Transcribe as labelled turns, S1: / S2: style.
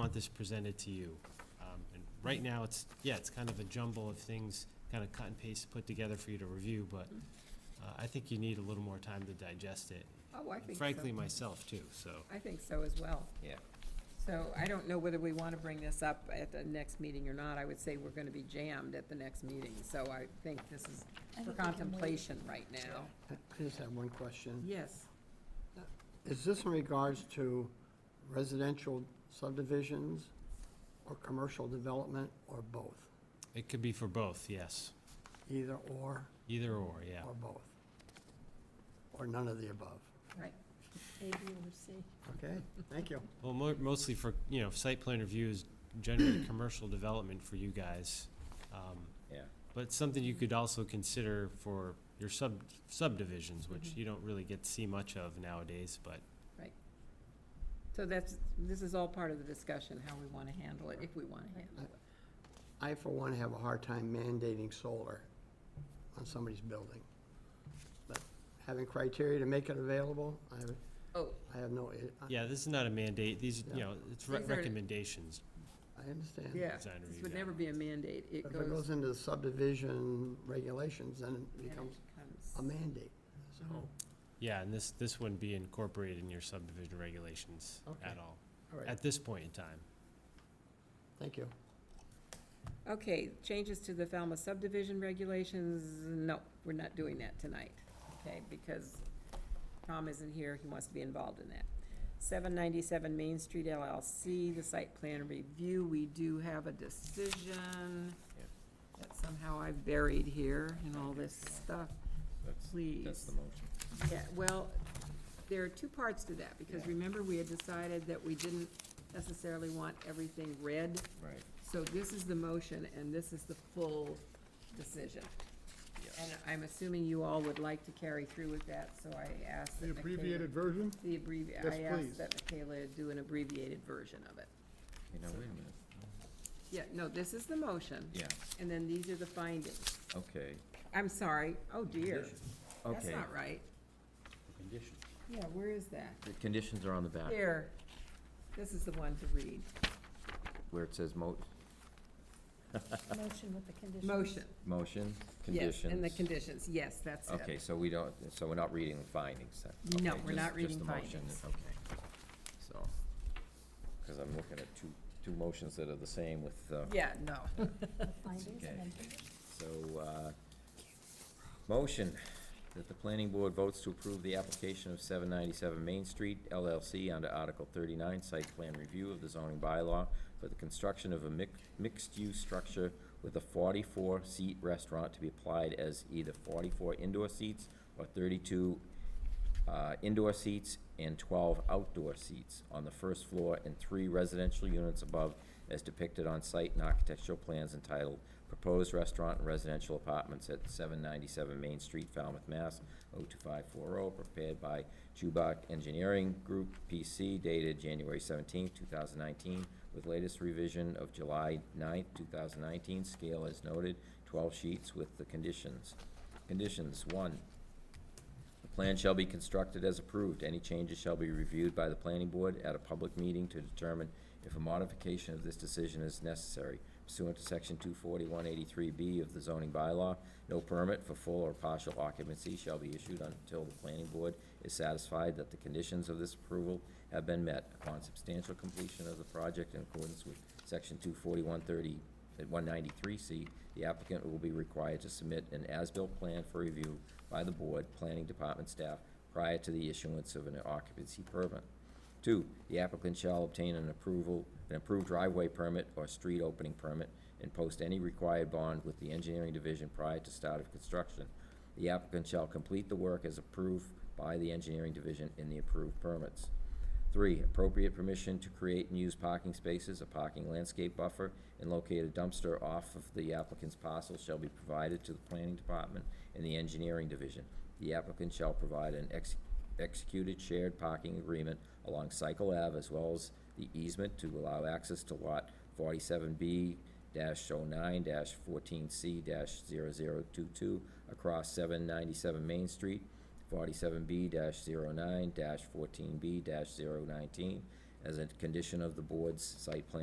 S1: want this presented to you. Um, And right now, it's, yeah, it's kind of a jumble of things, kind of cut and paste, put together for you to review, but uh, I think you need a little more time to digest it.
S2: Oh, I think so.
S1: Frankly, myself too, so.
S2: I think so as well.
S1: Yeah.
S2: So I don't know whether we want to bring this up at the next meeting or not. I would say we're going to be jammed at the next meeting, so I think this is for contemplation right now.
S3: I just have one question.
S2: Yes.
S3: Is this in regards to residential subdivisions or commercial development or both?
S1: It could be for both, yes.
S3: Either or,
S1: Either or, yeah.
S3: or both? Or none of the above?
S2: Right. Mm-hmm.
S4: A, B, or C.
S3: Okay, thank you.
S1: Well, mo- mostly for, you know, site plan review is generally commercial development for you guys. Um,
S5: Yeah.
S1: But it's something you could also consider for your sub subdivisions, which
S2: Mm-hmm.
S1: you don't really get to see much of nowadays, but
S2: So that's, this is all part of the discussion, how we want to handle it, if we want to handle it.
S3: I, for one, have a hard time mandating solar on somebody's building. But having criteria to make it available, I have,
S2: Oh,
S3: I have no, I-
S1: yeah, this is not a mandate. These, you know, it's re-
S2: These are-
S1: recommendations.
S3: I understand.
S2: yeah,
S1: Design
S2: this
S1: review
S2: would never be a mandate.
S3: But
S2: It
S3: If it
S2: goes.
S3: goes into the subdivision regulations, then it
S2: and it
S3: becomes
S2: becomes-
S3: a mandate, so.
S2: Mhm.
S1: Yeah, and this, this wouldn't be incorporated in your subdivision regulations at
S3: Okay.
S1: all,
S3: All right,
S1: at this point in time.
S3: thank you.
S2: Okay, changes to the Falmouth subdivision regulations, no, we're not doing that tonight, okay, because Tom isn't here, he wants to be involved in that. Seven ninety-seven Main Street LLC, the site plan review, we do have a decision that somehow I buried here in all this stuff,
S5: That's,
S2: please.
S5: that's the motion.
S2: Yeah, well, there are two parts to that, because
S5: Yeah.
S2: remember, we had decided that we didn't necessarily want everything red.
S5: Right.
S2: So this is the motion, and this is the full decision. And I'm assuming you all would like to carry through with that, so I asked
S6: The
S2: that Michaela-
S6: abbreviated version?
S2: The abbrevi,
S6: Yes,
S2: I asked
S6: please.
S2: that Michaela do an abbreviated version of it.
S5: You know, wait a minute.
S2: Yeah, no, this is the motion.
S5: Yeah,
S2: And then these are the findings.
S5: okay,
S2: I'm sorry, oh dear, that's
S5: okay.
S2: not right. Yeah, where is that?
S5: The conditions are on the back
S2: Here, this is the one to read.
S5: where it says mo,
S4: Motion with the conditions.
S2: Motion.
S5: motion,
S2: Yes,
S5: conditions.
S2: And the conditions, yes, that's it.
S5: Okay, so we don't, so we're not reading the findings then?
S2: No,
S5: Okay,
S2: we're not
S5: just- just
S2: reading
S5: the motion,
S2: findings.
S5: Okay, so, because I'm looking at two, two motions that are the same with, uh,
S2: Yeah, no.
S4: Findings and then
S5: So, uh, motion that the planning board votes to approve the application of 797 Main Street LLC under Article 39 Site Plan Review of the zoning bylaw for the construction of a mix- mixed-use structure with a 44-seat restaurant to be applied as either 44 indoor seats or 32 uh, indoor seats and 12 outdoor seats on the first floor and three residential units above as depicted on site and architectural plans entitled Proposed Restaurant and Residential Apartments at 797 Main Street, Falmouth, Mass. 02540, oh, prepared by Chubak Engineering Group, PC, dated January 17, 2019, with latest revision of July 9, 2019, scale as noted, 12 sheets with the conditions. Conditions, one, the plan shall be constructed as approved. Any changes shall be reviewed by the planning board at a public meeting to determine if a modification of this decision is necessary. Pursuant to section two forty-one eighty-three B of the zoning bylaw, no permit for full or partial occupancy shall be issued until the planning board is satisfied that the conditions of this approval have been met. Upon substantial completion of the project in accordance with section two forty-one thirty at 193C, the applicant will be required to submit an as-built plan for review by the board, planning department staff, prior to the issuance of an occupancy permit. Two, the applicant shall obtain an approval, an approved driveway permit or street opening permit and post any required bond with the engineering division prior to start of construction. The applicant shall complete the work as approved by the engineering division in the approved permits. Three, appropriate permission to create and use parking spaces, a parking landscape buffer, and locate a dumpster off of the applicant's parcel shall be provided to the planning department and the engineering division. The applicant shall provide an ex- executed shared parking agreement along Cycle Ave as well as the easement to allow access to lot forty-seven B 9 fourteen C 22 across seven ninety-seven Main Street, forty-seven B 9 fourteen B 19 as a condition of the board's site plan